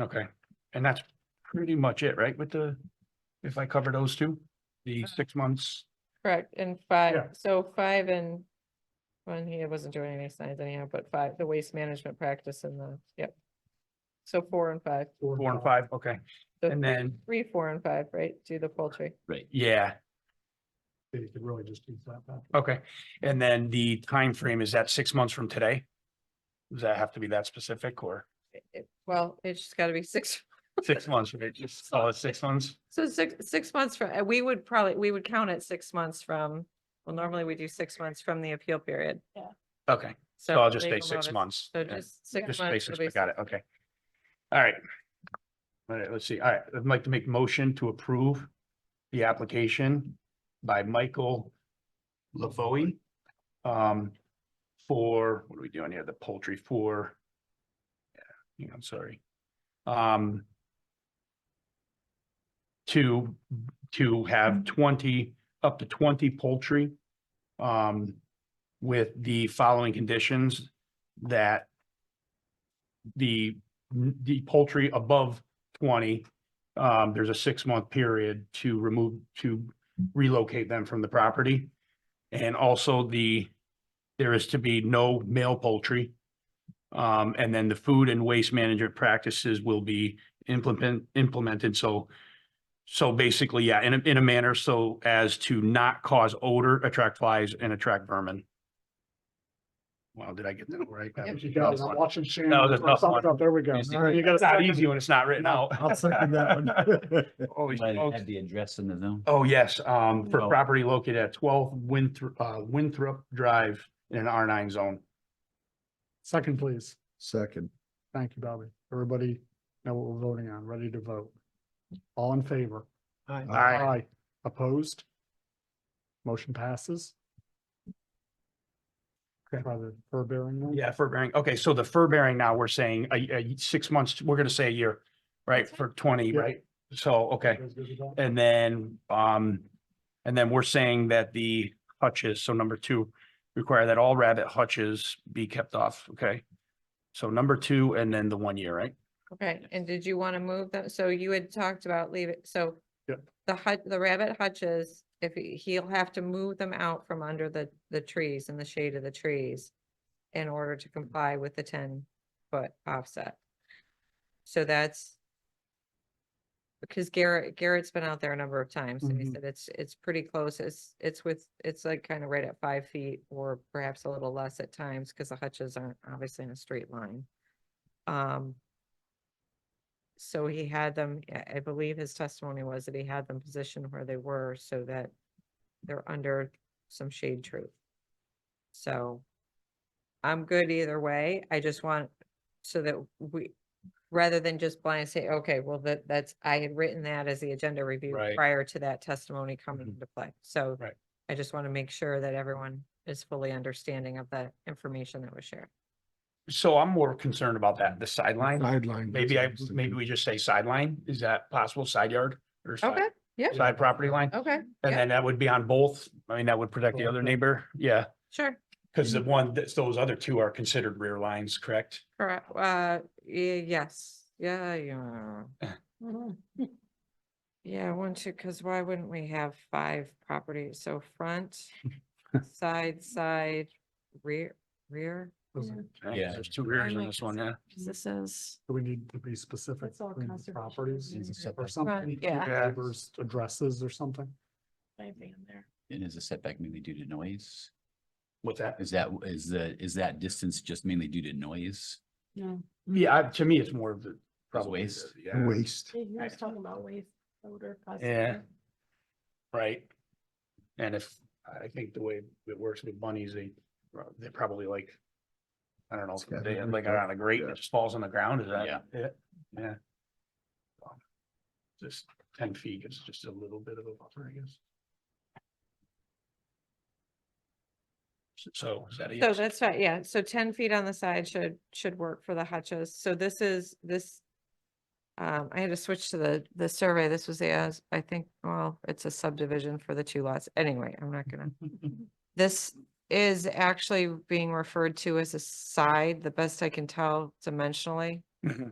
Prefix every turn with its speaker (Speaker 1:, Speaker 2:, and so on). Speaker 1: Okay, and that's pretty much it, right, with the, if I cover those two, the six months?
Speaker 2: Correct, and
Speaker 1: Yeah.
Speaker 2: five, so five and one, he wasn't doing any signs anyhow, but five, the waste management practice and the, yep. So four and five,
Speaker 1: Four and five, okay,
Speaker 2: So
Speaker 1: and then,
Speaker 2: three, four and five, right, do the poultry.
Speaker 3: Right.
Speaker 1: yeah,
Speaker 4: You could really just do flat back.
Speaker 1: okay, and then the time frame is that six months from today? Does that have to be that specific or
Speaker 2: It- it- Well, it's just gotta be six,
Speaker 1: six months, right, just call it six months?
Speaker 2: so six, six months from, uh, we would probably, we would count it six months from, well, normally we do six months from the appeal period.
Speaker 1: Okay, so I'll just say
Speaker 2: legal
Speaker 1: six
Speaker 2: notice.
Speaker 1: months.
Speaker 2: So
Speaker 1: yeah.
Speaker 2: just six
Speaker 1: Just
Speaker 2: months.
Speaker 1: basis,
Speaker 2: it'll
Speaker 1: I
Speaker 2: be
Speaker 1: got
Speaker 2: six-
Speaker 1: it, okay. All right. All right, let's see, all right, I'd like to make motion to approve the application by Michael Lavoie. Um, for, what are we doing here, the poultry for? Yeah, I'm sorry. Um. To, to have twenty, up to twenty poultry. Um, with the following conditions that the, the poultry above twenty, um, there's a six-month period to remove, to relocate them from the property. And also the, there is to be no male poultry. Um, and then the food and waste management practices will be implement, implemented, so so basically, yeah, in a, in a manner so as to not cause odor, attract flies, and attract vermin. Wow, did I get that right? That was a
Speaker 4: You got it.
Speaker 1: tough
Speaker 4: I'm
Speaker 1: one.
Speaker 4: watching Shannon.
Speaker 1: That was a
Speaker 4: throw
Speaker 1: tough
Speaker 4: something
Speaker 1: one.
Speaker 4: up. There we go.
Speaker 3: Easy.
Speaker 4: All right, you got a
Speaker 1: It's not
Speaker 4: second?
Speaker 1: easy when it's not written out.
Speaker 4: I'll second that one.
Speaker 1: Holy
Speaker 3: Might
Speaker 1: smokes.
Speaker 3: Have the address in the zone.
Speaker 1: Oh, yes, um, for
Speaker 3: No.
Speaker 1: property located at twelve Winthrop, uh, Winthrop Drive in an R nine zone.
Speaker 4: Second, please.
Speaker 5: Second,
Speaker 4: Thank you, Bobby. Everybody know what we're voting on, ready to vote. All in favor? Aye.
Speaker 1: Aye.
Speaker 4: Opposed? Motion passes. Okay, by the fur bearing one?
Speaker 1: Yeah, fur bearing. Okay, so the fur bearing now, we're saying a, a six months, we're gonna say a year, right,
Speaker 2: That's
Speaker 1: for twenty,
Speaker 4: Yeah.
Speaker 1: right? So, okay,
Speaker 4: You guys good with that?
Speaker 1: and then, um, and then we're saying that the hutches, so number two, require that all rabbit hutches be kept off, okay? So number two and then the one year, right?
Speaker 2: Okay, and did you want to move them? So you had talked about leave it, so.
Speaker 4: Yep.
Speaker 2: The hut, the rabbit hutches, if he- he'll have to move them out from under the, the trees and the shade of the trees. In order to comply with the ten foot offset. So that's. Because Garrett, Garrett's been out there a number of times and he
Speaker 4: Mhm.
Speaker 2: said it's, it's pretty close. It's, it's with, it's like kind of right at five feet or perhaps a little less at times because the hutches aren't obviously in a straight line. Um. So he had them, I- I believe his testimony was that he had them positioned where they were so that they're under some shade tree. So I'm good either way. I just want, so that we, rather than just blind say, okay, well, that, that's, I had written that as the agenda review
Speaker 1: Right.
Speaker 2: prior to that testimony coming
Speaker 1: Mhm.
Speaker 2: into play. So
Speaker 1: Right.
Speaker 2: I just want to make sure that everyone is fully understanding of the information that was shared.
Speaker 1: So I'm more concerned about that, the sideline.
Speaker 5: guideline.
Speaker 1: Maybe I, maybe we just say sideline, is that possible, side yard or side,
Speaker 2: Okay, yeah,
Speaker 1: side property line?
Speaker 2: okay,
Speaker 1: And
Speaker 2: yeah.
Speaker 1: then that would be on both, I mean, that would protect the other neighbor, yeah,
Speaker 2: sure.
Speaker 1: because
Speaker 2: Mm-hmm.
Speaker 1: the one, that's, those other two are considered rear lines, correct?
Speaker 2: Correct, uh, ye- yes, yeah, yeah. Yeah, one, two, cause why wouldn't we have five properties, so front, side, side, rear, rear,
Speaker 4: Those are-
Speaker 1: Right, 'cause
Speaker 3: Yeah.
Speaker 1: There's two rears in this one, yeah.
Speaker 2: cause this is.
Speaker 4: Do we need to be specific
Speaker 6: That's all
Speaker 4: between the
Speaker 6: conservation
Speaker 4: properties
Speaker 6: and
Speaker 3: setback.
Speaker 4: or
Speaker 3: Right,
Speaker 4: something?
Speaker 2: yeah.
Speaker 1: Yeah.
Speaker 4: Neighbors' addresses or something?
Speaker 6: anything in there.
Speaker 3: And is the setback mainly due to noise?
Speaker 1: What's that?
Speaker 3: Is that, is the, is that distance just mainly due to noise?
Speaker 6: No,
Speaker 1: Yeah, I- to me, it's more of the. probably the-
Speaker 3: waste.
Speaker 1: Yeah,
Speaker 5: Waste.
Speaker 6: he was talking about waste odor.
Speaker 1: Yeah. right. And if, I think the way it works with bunnies, they, they probably like, I don't know,
Speaker 5: It's gotta
Speaker 1: they
Speaker 5: be
Speaker 1: have like
Speaker 5: like that,
Speaker 1: on a grate and
Speaker 5: yeah.
Speaker 1: it just falls on the ground, is that?
Speaker 3: Yeah.
Speaker 1: it? Yeah. So, Just ten feet is just a little bit of a buffer, I guess. So is that a
Speaker 2: So
Speaker 1: yes?
Speaker 2: that's right, yeah, so ten feet on the side should, should work for the hutches, so this is, this. Um, I had to switch to the, the survey, this was the, as I think, well, it's a subdivision for the two lots, anyway, I'm not gonna. This is actually being referred to as a side, the best I can tell dimensionally.
Speaker 1: Mhm.